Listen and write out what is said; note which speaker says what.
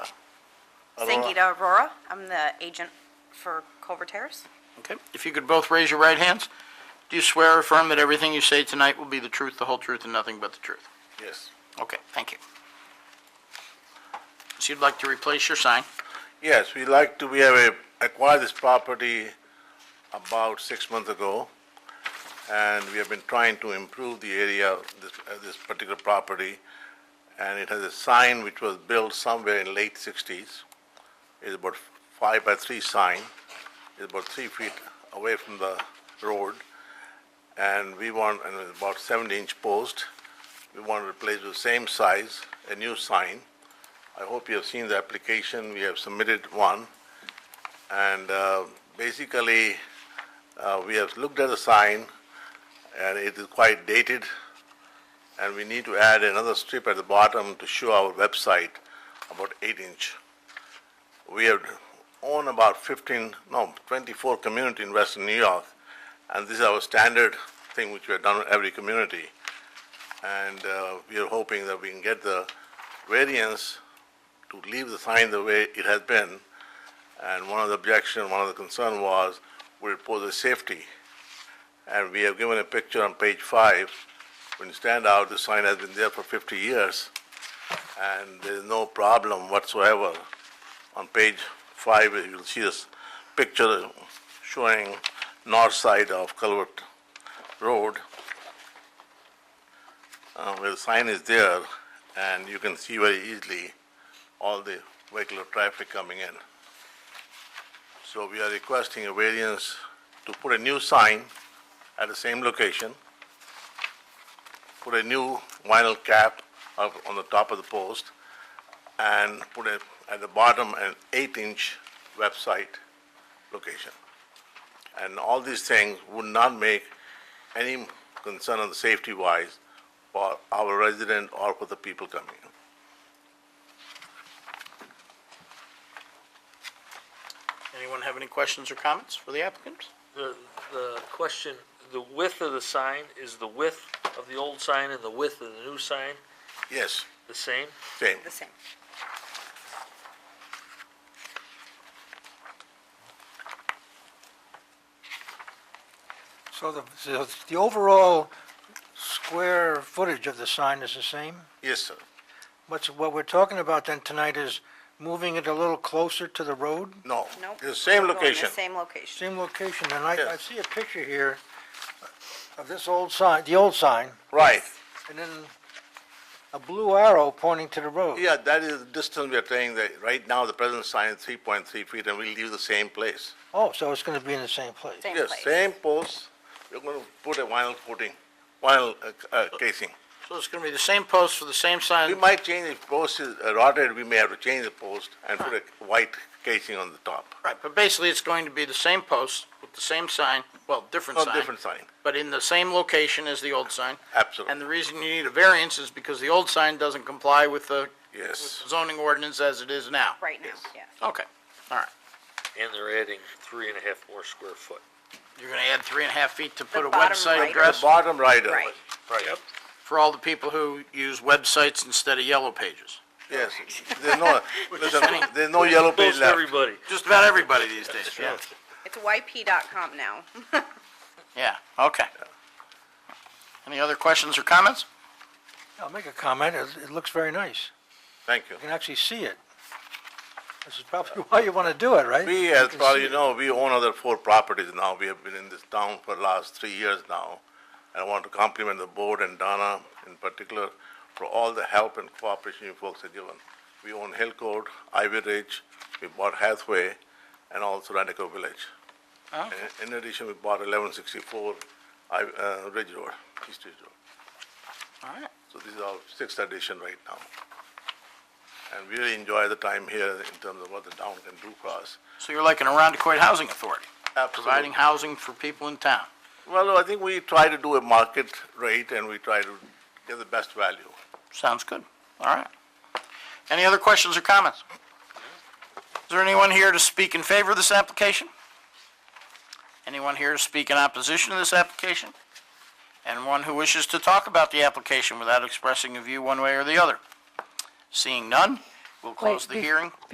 Speaker 1: Sangita Aurora. I'm the agent for Culver Terrace.
Speaker 2: Okay, if you could both raise your right hands. Do you swear or affirm that everything you say tonight will be the truth, the whole truth, and nothing but the truth?
Speaker 3: Yes.
Speaker 2: Okay, thank you. So you'd like to replace your sign?
Speaker 3: Yes, we like to, we have a- acquired this property about six months ago, and we have been trying to improve the area, of this, uh, this particular property, and it has a sign which was built somewhere in late sixties. It's about five by three sign, it's about three feet away from the road, and we want, and it's about seventy inch post. We want to replace with same size, a new sign. I hope you have seen the application, we have submitted one. And uh, basically, uh, we have looked at the sign, and it is quite dated, and we need to add another strip at the bottom to show our website, about eight inch. We have own about 15, no, 24 community in western New York, and this is our standard thing which we have done in every community. And uh, we are hoping that we can get the variance to leave the sign the way it has been. And one of the objection, one of the concern was, would it pose a safety? And we have given a picture on page five. When you stand out, the sign has been there for 50 years, and there's no problem whatsoever. On page five, you'll see this picture showing north side of Culvert Road, uh, where the sign is there, and you can see very easily all the vehicular traffic coming in. So we are requesting a variance to put a new sign at the same location, put a new vinyl cap up on the top of the post, and put a, at the bottom, an eight-inch website location. And all these things would not make any concern on the safety-wise for our resident or for the people coming in.
Speaker 2: Anyone have any questions or comments for the applicant?
Speaker 4: The, the question, the width of the sign, is the width of the old sign and the width of the new sign
Speaker 3: Yes,
Speaker 4: the same?
Speaker 3: same.
Speaker 1: The same.
Speaker 5: So the, so the overall square footage of the sign is the same?
Speaker 3: Yes, sir.
Speaker 5: What's, what we're talking about then tonight is moving it a little closer to the road?
Speaker 3: No.
Speaker 1: Nope.
Speaker 3: The same
Speaker 1: We're going the
Speaker 3: location.
Speaker 1: Same location.
Speaker 5: Same location, and I, I
Speaker 3: Yes.
Speaker 5: see a picture here of this old sign, the old sign,
Speaker 3: Right.
Speaker 5: and then a blue arrow pointing to the road.
Speaker 3: Yeah, that is the distance we are saying that right now the present sign is 3.3 feet and we'll leave the same place.
Speaker 5: Oh, so it's gonna be in the same place?
Speaker 1: Same
Speaker 3: Yes,
Speaker 1: place.
Speaker 3: same post, we're going to put a vinyl coating, vinyl uh, uh, casing.
Speaker 2: So it's going to be the same post for the same
Speaker 3: We
Speaker 2: sign?
Speaker 3: might change if post is uh, rotted, we may have to change the post and put a white casing on the top.
Speaker 2: Right, but basically, it's going to be the same post with the same sign, well, different
Speaker 3: No
Speaker 2: sign,
Speaker 3: Oh, different sign,
Speaker 2: but in the same location as the old sign. And
Speaker 3: absolutely,
Speaker 2: the reason you need a variance is because the old sign doesn't comply with the
Speaker 3: yes.
Speaker 2: zoning ordinance as it is now.
Speaker 1: Right now,
Speaker 3: Yes.
Speaker 1: yeah.
Speaker 2: Okay, all right.
Speaker 4: And they're adding three and a half more square foot.
Speaker 2: You're going to add three and a half feet to put a
Speaker 1: bottom
Speaker 2: website
Speaker 1: right.
Speaker 3: The
Speaker 2: address
Speaker 3: bottom right of
Speaker 1: Right.
Speaker 3: it, right,
Speaker 2: for all the people who use websites instead of yellow pages.
Speaker 3: yes. There's no, listen,
Speaker 2: funny.
Speaker 3: there's no yellow page
Speaker 4: Close to
Speaker 3: left.
Speaker 4: everybody.
Speaker 2: Just about everybody these days, yeah.
Speaker 1: It's yp.com now.
Speaker 2: Yeah, okay. Any other questions or comments?
Speaker 5: I'll make a comment, it, it looks very nice.
Speaker 3: Thank you.
Speaker 5: You can actually see it. This is probably why you wanna do it, right?
Speaker 3: We,
Speaker 5: You
Speaker 3: as
Speaker 5: can
Speaker 3: probably
Speaker 5: see
Speaker 3: you
Speaker 5: it.
Speaker 3: know, we own other four properties now. We have been in this town for the last three years now. And I want to compliment the board and Donna in particular for all the help and cooperation you folks have given. We own Hill Court, Ivy Ridge, we bought Hathaway, and also Radico Village.
Speaker 4: Ah.
Speaker 3: And In addition, we bought eleven sixty-four, I, uh, Ridge Road, East Ridge Road.
Speaker 2: All right.
Speaker 3: So this is our sixth edition right now. And we really enjoy the time here in terms of what the town can do for us.
Speaker 2: So you're like an Arundicoid Housing Authority,
Speaker 3: Absolutely.
Speaker 2: providing housing for people in town.
Speaker 3: Well, I think we try to do a market rate and we try to get the best value.
Speaker 2: Sounds good. All right. Any other questions or comments? Is there anyone here to speak in favor of this application? Anyone here to speak in opposition to this application? And one who wishes to talk about the application without expressing a view one way or the other? Seeing none, we'll close the
Speaker 6: be-
Speaker 2: hearing.